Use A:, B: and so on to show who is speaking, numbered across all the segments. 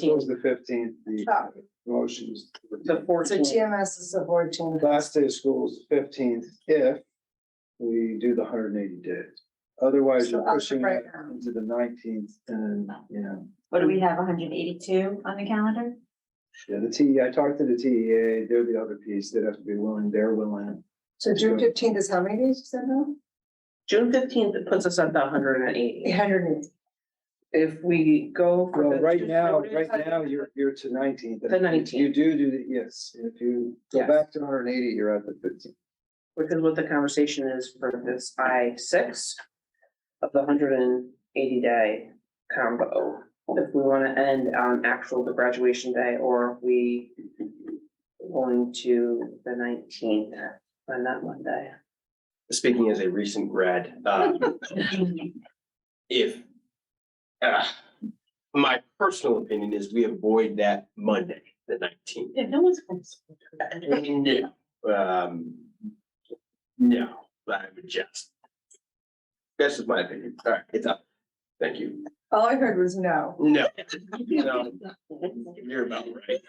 A: This was the fifteenth, the
B: Oh,
A: motions.
C: The
B: So
C: fourteenth,
B: TMS is the board change.
A: Last day of school is the fifteenth if we do the hundred and eighty days. Otherwise,
B: So
A: you're
B: that's
A: pushing
B: right
A: it
B: now.
A: into the nineteenth and, you know,
D: What do we have, hundred eighty-two on the calendar?
A: yeah, the T, E I talked to the TEA, they're the other piece, they'd have to be willing, they're willing.
B: So June fifteenth is how many days you said now?
C: June fifteenth, it puts us at the hundred and
B: Eight
C: eighty.
B: hundred and eighty.
C: If we go. for
A: Well,
C: the
A: right
C: two
A: now,
C: voted-
A: right now, you're, you're to nineteenth.
C: The 19th.
A: You do do, the yes, if you go
C: Yes.
A: back to hundred and eighty, you're at the fifteenth.
C: Which is what the conversation is for this I six of the hundred and eighty day combo. If we wanna end on actual the graduation day or if we going to the nineteenth on that Monday.
E: speaking as a recent grad, um, if uh, my personal opinion is we avoid that Monday, the nineteenth.
C: Yeah, no one's. going to-
E: No, um, no, I would just. That's just my opinion. All right, it's up. Thank you.
B: All I heard was no.
E: No, no, Mm-hmm. you're about right.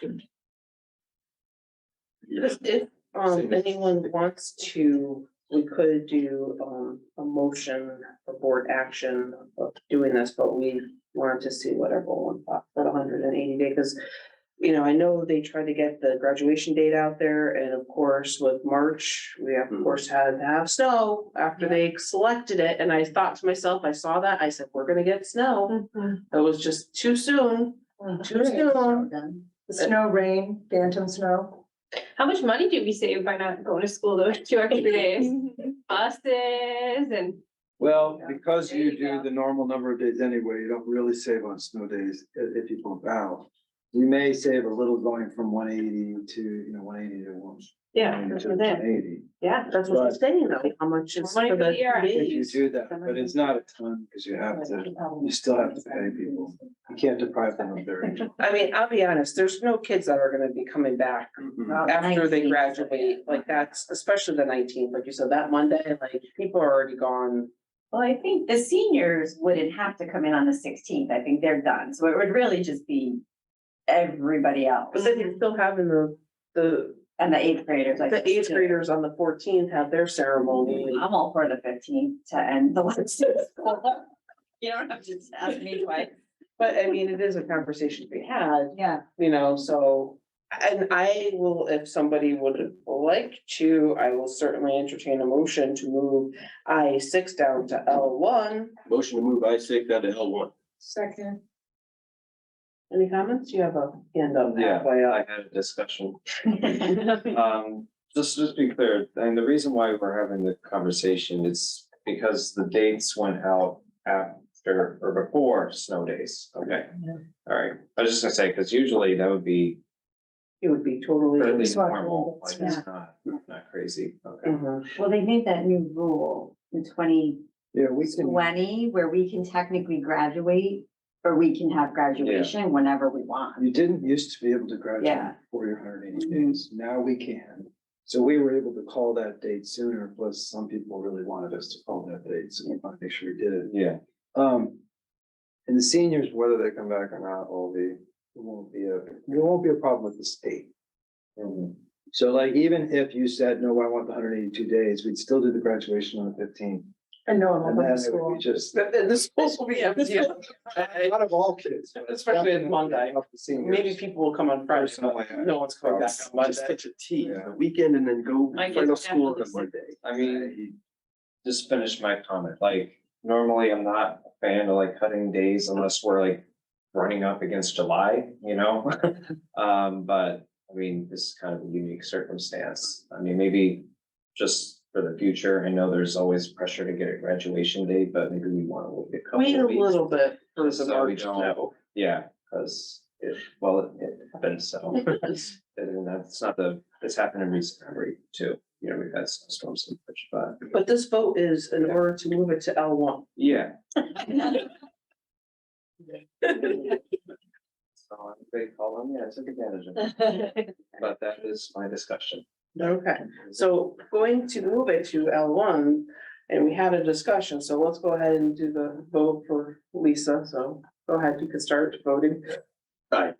E: Yes.
C: If um anyone wants to, we could do um a motion for board action of doing this, but we wanted to see what everyone thought for the hundred and eighty day, because you know, I know they tried to get the graduation date out there, and of course with March, we of
E: Mhm.
C: course had to have snow after they selected it, and I thought to myself, I saw that, I said, we're gonna get snow. It was just too soon,
D: Oh,
C: too soon.
B: The snow, rain, phantom snow.
F: How much money do we save by not going to school those two extra days? Buses and,
A: Well,
B: Yeah.
A: because
F: There
A: you
F: you
A: do
F: go.
A: the normal number of days anyway, you don't really save on snow days i- if you bump out. You may save a little going from one eighty to, you know, one eighty to one.
C: Yeah, that's what I did.
A: Eighty,
C: yeah, that's what I'm saying, though, how much is
F: Money
C: for
F: for
C: the
F: the year. I
A: if you
C: days.
A: do that, but it's not a ton, because you have to, you still have to pay people, you can't deprive them of their.
C: I mean, I'll be honest, there's no kids that are gonna be coming back
E: Mm-hmm.
D: Oh,
C: after they
D: 19th,
C: graduate, like that's, especially the nineteenth, like you said, that Monday, like people are already gone.
D: Well, I think the seniors wouldn't have to come in on the sixteenth, I think they're done, so it would really just be everybody else.
C: But then you're still having the, the,
D: And the eighth graders, I.
C: the
D: think,
C: eighth
D: too.
C: graders on the fourteenth have their ceremony.
D: I'm all for the fifteenth to end the last. day of school. You don't have to ask me twice.
C: But I mean, it is a conversation to be had,
D: Yeah.
C: you know, so. And I will, if somebody would like to, I will certainly entertain a motion to move I six down to L one.
E: Motion to move I six down to L one.
B: Second.
C: Any comments? You have a hand up
G: Yeah,
C: halfway up.
G: I had a discussion. Um, just, just be clear, and the reason why we're having the conversation is because the dates went out after or before snow days, okay? All right, I was just gonna say, because usually that would be
C: It would be totally.
G: fairly
B: It's not
G: normal,
B: really,
G: like it's not, not crazy, okay?
C: Mhm.
D: Well, they made that new rule in twenty
A: Yeah, we can,
D: twenty, where we can technically graduate, or we can have graduation whenever we want.
A: you didn't used to be able to graduate
D: Yeah.
A: before your hundred and eighty days, now we can. So we were able to call that date sooner, plus some people really wanted us to call that date, so we wanted to make sure we did it.
G: Yeah,
A: Um, and the seniors, whether they come back or not, will be, it won't be a, there won't be a problem with the state.
C: Mm-hmm.
G: Mhm.
A: So like, even if you said, no, I want the hundred eighty-two days, we'd still do the graduation on the fifteenth.
B: And no one
A: And
B: will go
A: then
B: to
A: it would
B: school.
A: be just,
C: The, the- the schools will be empty.
A: out of all kids. but
C: Especially on Monday.
A: of the seniors.
C: Maybe people will come on Friday.
A: Personally, I-
C: No one's coming back on
E: Just
C: Monday.
E: catch a T
A: Yeah.
E: the weekend and then go
F: I
E: final
F: guess
E: school on
F: definitely.
E: Monday.
G: I mean, just finish my comment, like, normally I'm not a fan of like cutting days unless we're like running up against July, you know? Um, but, I mean, this is kind of a unique circumstance, I mean, maybe just for the future, I know there's always pressure to get a graduation date, but maybe we wanna wait a
C: Wait
G: couple
C: a
G: of weeks.
C: little bit for the
G: So we
C: March
G: don't-
C: no.
G: Yeah, cause it, well, it- it happened, so, and that's not the, it's happened in recent memory too, you know, we've had snowstorms and such, but.
C: But this vote is in order to move it to L one.
G: Yeah. So they call them, yeah, I took advantage of it, but that is my discussion.
C: Okay, so going to move it to L one, and we had a discussion, so let's go ahead and do the vote for Lisa, so go ahead, you can start voting.
E: Aye.